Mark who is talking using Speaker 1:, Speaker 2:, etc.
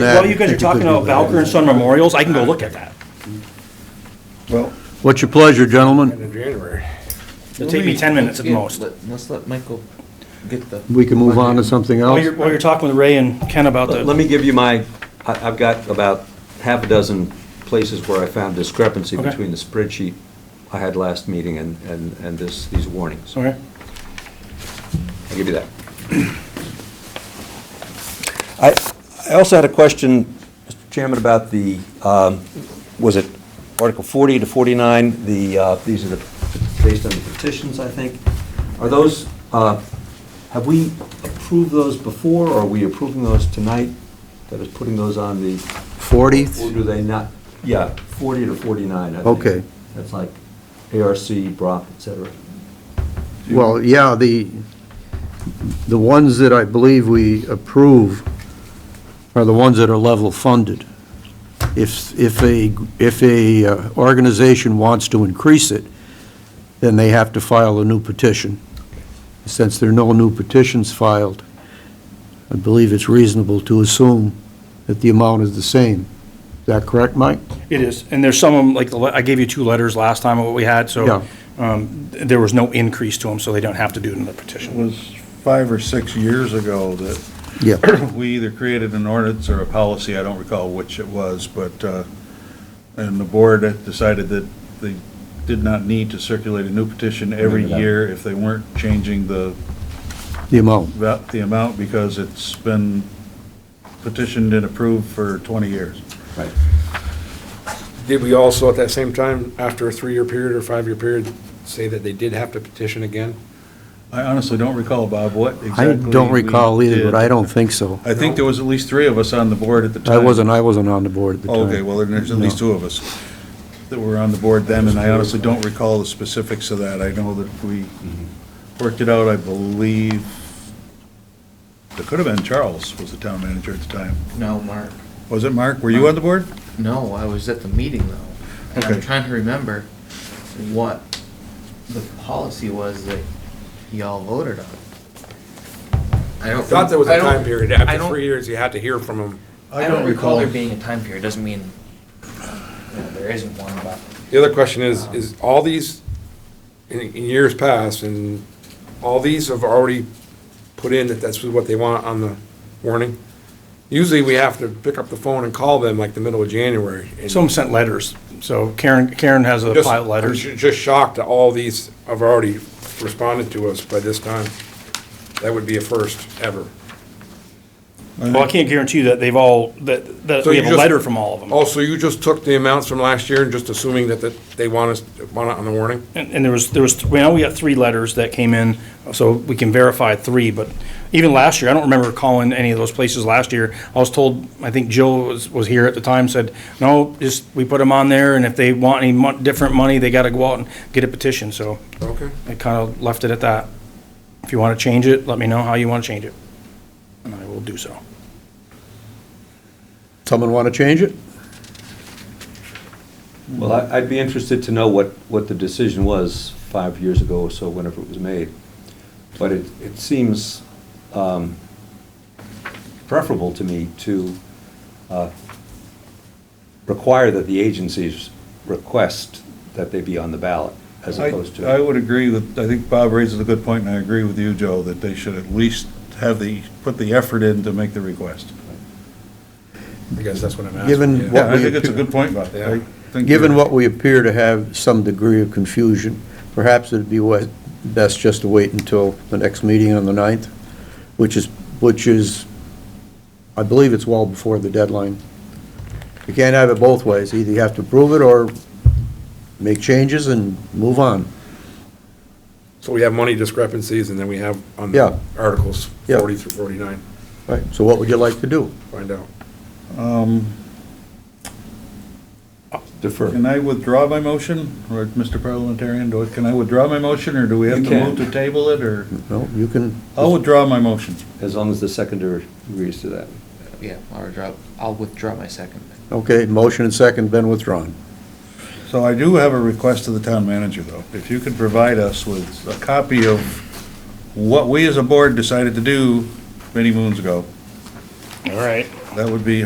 Speaker 1: While you guys are talking about Valker and Son memorials, I can go look at that.
Speaker 2: Well,
Speaker 3: What's your pleasure, gentlemen?
Speaker 4: in January.
Speaker 1: It'll take me 10 minutes at
Speaker 5: Yeah,
Speaker 1: most.
Speaker 5: let- Let's let Michael get the.
Speaker 3: We can move on to something
Speaker 1: While
Speaker 3: else?
Speaker 1: you're, while you're talking with Ray and Ken about
Speaker 6: Let
Speaker 1: the,
Speaker 6: me give you my, I- I've got about half a dozen places where I found discrepancy
Speaker 1: Okay.
Speaker 6: between the spreadsheet I had last meeting and, and and this, these warnings.
Speaker 1: sorry,
Speaker 6: I'll give you that. I, I also had a question, Mr. Chairman, about the, um, was it Article 40 to 49, the, uh, these are the, based on the petitions, I think. Are those, uh, have we approved those before, or are we approving those tonight? That is putting those on the, or
Speaker 3: 40th?
Speaker 6: do they not? Yeah, 40 to 49, I think.
Speaker 3: Okay.
Speaker 6: That's like ARC, Brock, et cetera.
Speaker 3: Well, yeah, the, the ones that I believe we approve are the ones that are level funded. If, if a, if a uh, organization wants to increase it, then they have to file a new petition. Since there are no new petitions filed, I believe it's reasonable to assume that the amount is the same. Is that correct, Mike?
Speaker 1: it is. And there's some, of 'em, like, the le- I gave you two letters last time of what we had,
Speaker 3: Yeah.
Speaker 1: so um, th- there was no increase to them, so they don't have to do it in the
Speaker 2: it
Speaker 1: petition.
Speaker 2: was five or six years ago that
Speaker 3: Yeah.
Speaker 2: we either created an ordinance or a policy, I don't recall which it was, but, uh, and the board had decided that they did not need to circulate a new petition every year if they weren't changing the,
Speaker 3: The amount.
Speaker 2: va- the amount because it's been petitioned and approved for 20 years.
Speaker 4: Did we also, at that same time, after a three-year period or five-year period, say that they did have to petition again?
Speaker 2: I honestly don't recall, Bob, what
Speaker 3: I
Speaker 2: exactly.
Speaker 3: don't
Speaker 2: we
Speaker 3: recall either, but
Speaker 2: did.
Speaker 3: I don't think so.
Speaker 2: I think there was at least three of us on the board at the time.
Speaker 3: I wasn't, I wasn't on the board at the time.
Speaker 2: Oh, Okay, well, then there's at least two of us that were on the board then, and I honestly don't recall the specifics of that. I know that we worked it out, I believe, it could have been Charles was the town manager at the time.
Speaker 5: No, Mark.
Speaker 2: Was it Mark? Were you on the board?
Speaker 5: No, I was at the meeting though. And I'm
Speaker 2: Okay.
Speaker 5: trying to remember what the policy was that y'all voted on. I don't.
Speaker 4: I thought there was a
Speaker 5: I don't-
Speaker 4: time period,
Speaker 5: I
Speaker 4: after
Speaker 5: don't-
Speaker 4: three years, you had to hear from them.
Speaker 5: I don't recall there being a time period, doesn't mean, you know, there isn't one, but.
Speaker 4: The other question is, is all these, in, in years past, and all these have already put in that that's what they want on the warning? Usually, we have to pick up the phone and call them like the middle of January. and
Speaker 1: Some sent letters, so Karen, Karen has a
Speaker 4: just-
Speaker 1: pile of letters.
Speaker 4: I'm ju- Just shocked that all these have already responded to us by this time. That would be a first ever.
Speaker 1: Well, I can't guarantee that they've all, that, that
Speaker 4: So
Speaker 1: we
Speaker 4: you
Speaker 1: have a
Speaker 4: just- Oh,
Speaker 1: letter from all of them.
Speaker 4: Also, you just took the amounts from last year and just assuming that, that they want us, want it on the warning?
Speaker 1: And and there was, there was, we know we got three letters that came in, so we can verify three, but even last year, I don't remember calling any of those places last year. I was told, I think Jill was, was here at the time, said, no, just, we put them on there, and if they want any mon- different money, they gotta go out and get a petition, so
Speaker 4: Okay.
Speaker 1: I kinda left it at that. If you wanna change it, let me know how you wanna change it, and I will do so.
Speaker 3: Someone want to change it?
Speaker 6: Well, I- I'd be interested to know what, what the decision was five years ago or so, whenever it was made. But it, it seems um, preferable to me to uh, require that the agencies request that they be on the ballot, as
Speaker 2: I-
Speaker 6: opposed
Speaker 2: I
Speaker 6: to,
Speaker 2: would agree with, I think Bob raises a good point, and I agree with you, Joe, that they should at least have the, put the effort in to make the request.
Speaker 4: I guess that's what I'm asking.
Speaker 3: Given
Speaker 4: yeah.
Speaker 3: what
Speaker 2: Yeah, I
Speaker 3: we,
Speaker 2: think it's a
Speaker 3: appear-
Speaker 2: good point, Bob. I
Speaker 4: Yeah.
Speaker 2: think
Speaker 3: given
Speaker 2: you're-
Speaker 3: what we appear to have some degree of confusion, perhaps it'd be wa- best just to wait until the next meeting on the 9th, which is, which is, I believe it's well before the deadline. You can't have it both ways. Either you have to approve it or make changes and move on.
Speaker 4: So we have money discrepancies and then we have on the
Speaker 3: Yeah.
Speaker 4: articles
Speaker 3: Yeah.
Speaker 4: forty through forty-nine,
Speaker 3: Right, so what would you like to do?
Speaker 4: find out.
Speaker 2: Um,
Speaker 6: defer.
Speaker 2: Can I withdraw my motion, or Mr. Parliamentarian, do I- can I withdraw my motion, or do we have
Speaker 6: You
Speaker 2: to
Speaker 6: can.
Speaker 2: move to table it, or?
Speaker 3: No, you can,
Speaker 2: I'll withdraw my motion.
Speaker 6: as long as the seconder agrees to that.
Speaker 5: Yeah, I'll withdraw, I'll withdraw my second.
Speaker 3: okay, motion and second been withdrawn.
Speaker 2: So I do have a request to the town manager, though. If you could provide us with a copy of what we as a board decided to do many moons ago,
Speaker 1: All right.
Speaker 2: that would be